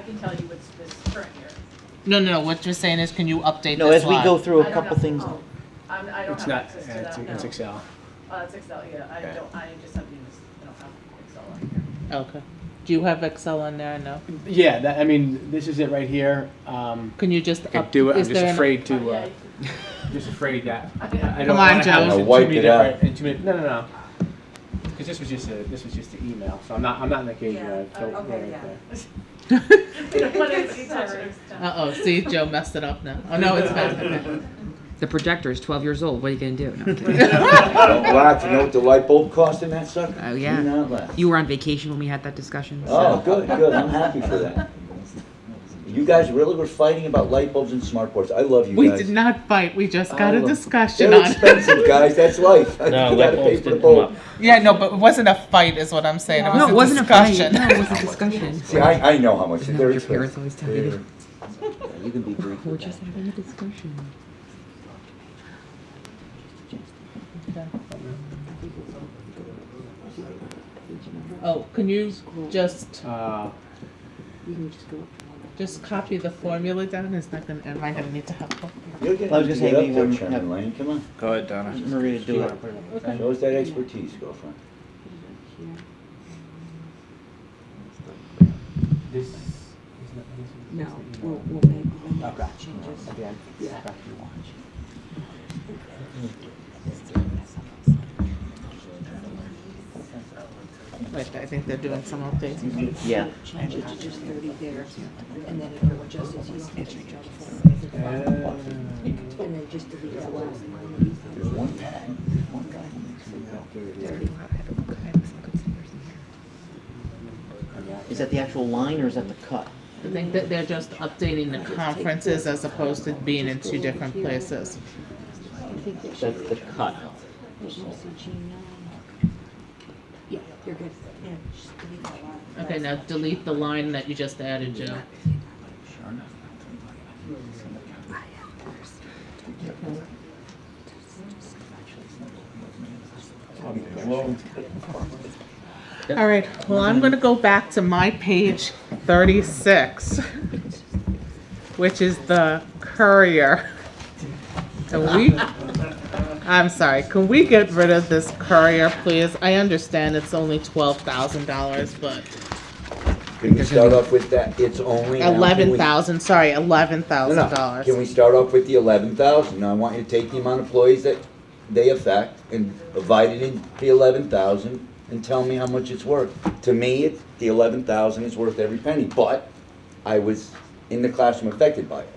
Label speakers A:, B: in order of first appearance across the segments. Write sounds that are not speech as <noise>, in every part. A: can tell you what's this current year.
B: No, no, no, what you're saying is, can you update this
C: No, as we
B: line?
C: go through
A: I
C: a
A: don't
C: couple
A: have-
C: things.
A: oh, I'm, I don't
D: It's
A: have
D: not,
A: access to
D: it's
A: that, no.
D: it's Excel.
A: Uh, it's Excel, yeah, I
D: Okay.
A: don't, I just have Unix, I don't have Excel on here.
B: Okay. Do you have Excel on there? No?
D: Yeah, that, I mean, this is it right here. Um,
B: Can you just
D: I could
B: up-
D: do it, I'm
B: is
D: just
B: there an-
D: afraid
A: Oh,
D: to,
A: yeah, <laughs>
D: uh,
A: you can-
D: just afraid that, I
A: Okay.
D: I don't
B: Come on,
D: wanna have
B: Joe.
D: this in
E: Wipe
D: too many
E: it out.
D: different, in too many, no, no, no. Cause this was just a, this was just an email, so I'm not, I'm not in the K
F: Yeah,
D: drive, so.
F: oh,
D: we're
F: okay,
D: right
F: yeah.
D: there.
A: We don't want it to cover.
B: Uh-oh, see, Joe messed it up now. Oh, no, it's
D: <laughs>
B: back. Okay.
G: The projector is 12 years old. What are you going to do? No, I'm kidding.
E: Don't laugh, you know what the light bulb cost in that sucker?
G: Oh, yeah.
E: Do not laugh.
G: you were on vacation when we had that discussion. so-
E: Oh, good, good, I'm happy for that. You guys really were fighting about light bulbs and smart boards, I love you
B: We
E: guys.
B: did not fight, we just got
E: I
B: a
E: love-
B: discussion
E: They're
B: on it.
E: expensive, guys, that's life. <laughs> You
H: No,
E: gotta
H: light
E: pay
H: bulbs
E: for the
H: didn't come
E: bulb.
H: up.
B: Yeah, no, but it wasn't a fight is what I'm saying,
G: No,
B: it
G: it
B: was a
G: wasn't a fight.
B: discussion.
G: No, it was a discussion.
E: See, I, I know how much
G: You know,
E: they're
G: your parents
E: expensive.
G: always tell you to-
E: Yeah, You can be brief
G: We're
E: with
G: just
E: that.
G: having a discussion.
B: <laughs> Oh, can you just,
D: Uh,
B: just copy the formula down? It's not gonna, am I gonna need to have?
E: You're gonna
C: I was
E: have to
C: just saying,
E: get up
C: we
E: there,
C: were-
E: Chairman Lane, come on.
H: Go ahead, Donna.
C: Maria,
D: you
C: do it.
D: wanna put it on the
B: Okay.
E: Show us that expertise, girlfriend.
D: This is not, this is
F: No,
D: just the
F: we'll,
D: email.
F: we'll make, we'll
D: Okay.
F: make changes.
D: At the end. Okay.
B: Wait, I think they're doing some updates.
C: Yeah.
F: Change it to just thirty there, and then if it adjusts, you don't have to change all the form.
D: Uh,
F: And then just delete the last line.
E: There's one guy, one guy who makes me feel good.
C: Is that the actual line or is that the cut?
B: I think that they're just updating the conferences as opposed to being in two different places.
F: I think that should,
C: That's the cut.
F: you should see G nine. Yeah, you're good, yeah, just delete that line.
B: Okay, now delete the line that you just added, Joe. All right, well, I'm gonna go back to my page thirty-six, which is the courier. And we, I'm sorry, can we get rid of this courier, please? I understand it's only twelve thousand dollars, but
E: Can we start off with that, it's only now? Can we-
B: eleven thousand, sorry, eleven
E: No,
B: thousand
E: no.
B: dollars.
E: Can we start off with the eleven thousand? Now, I want you to take the amount of employees that they affect and divide it into the eleven thousand and tell me how much it's worth. To me, it, the eleven thousand is worth every penny, but I was in the classroom affected by it.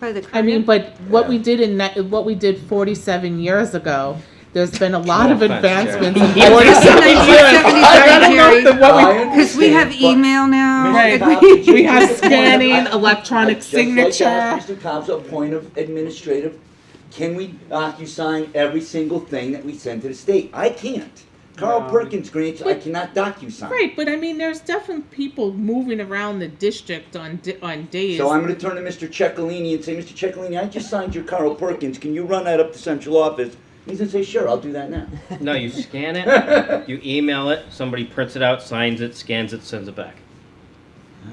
F: By the
B: I mean, but what we did in that, what we did forty-seven years ago, there's been a lot
H: No
B: of
H: offense, Jerry.
B: advancements in <laughs> forty-seven years. I don't know if the- what we-
E: I understand, but-
F: now.
B: Right.
E: Mr. Cobb,
B: <laughs> We have
E: just a point of-
B: scanning,
E: I- I-
B: electronic
E: I- just like to ask
B: signature.
E: Mr. Cobb's a point of administrative, can we docu-sign every single thing that we send to the state? I can't. Carl
D: No.
E: Perkins grants, I cannot docu-sign.
B: Right, but I mean, there's definitely people moving around the district on, di- on days.
E: So I'm gonna turn to Mr. Ciccolini and say, Mr. Ciccolini, I just signed your Carl Perkins, can you run that up to central office? He's gonna say, sure, I'll do that now.
H: No, you scan
E: <laughs>
H: it, you email it, somebody prints it out, signs it, scans it, sends it back.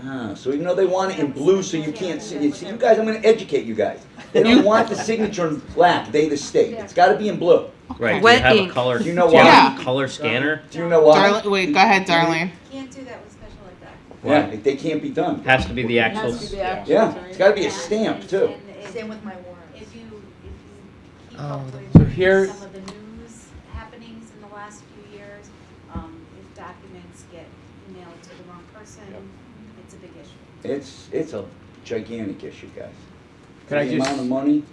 E: Ah, so even though they want it in blue, so you can't see, you see, you guys, I'm gonna educate you guys. They don't want the signature in black, they the state, it's gotta be in blue.
H: Right, do you
I: Wet
H: have a
I: ink.
H: color, do
E: You
H: you
E: know
H: have
B: why?
H: a color scanner?
E: Do you know why?
B: Darlene, wait, go ahead, Darlene.
I: Can't do that with special ed docs.
E: Yeah, they can't be done.
H: Has to be the
A: It
H: actual,
A: has to be the actual.
E: Yeah, it's gotta be a stamp too.
I: And if-
F: Same with my warrant.
I: If you, if you keep
G: Oh,
I: up
D: So here-
I: with some of the news happenings in the last few years, um, if documents get emailed to the wrong person, it's a big issue.
E: It's, it's a gigantic issue, guys.
D: Can I
E: The amount
D: just-
E: of money,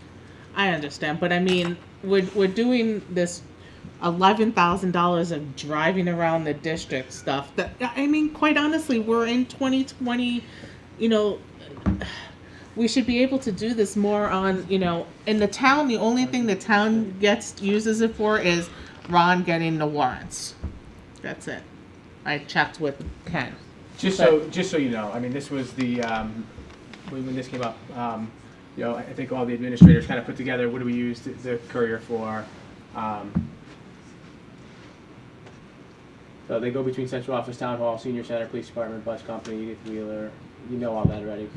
B: I understand, but I mean, we're, we're doing this eleven thousand dollars of driving around the district stuff. That I mean, quite honestly, we're in twenty twenty. You know, we should be able to do this more on. You know, in the town, the only thing the town gets uses it for is Ron getting the warrants. That's it. I checked with Ken.
D: Just so, just so you know, I mean, this was the, um, when, when this came up, um, you know, I I think all the administrators kind of put together, what do we use the- the courier for? Um, So they go between central office, town hall, senior center, police department, bus company, Edith Wheeler, you know all that already.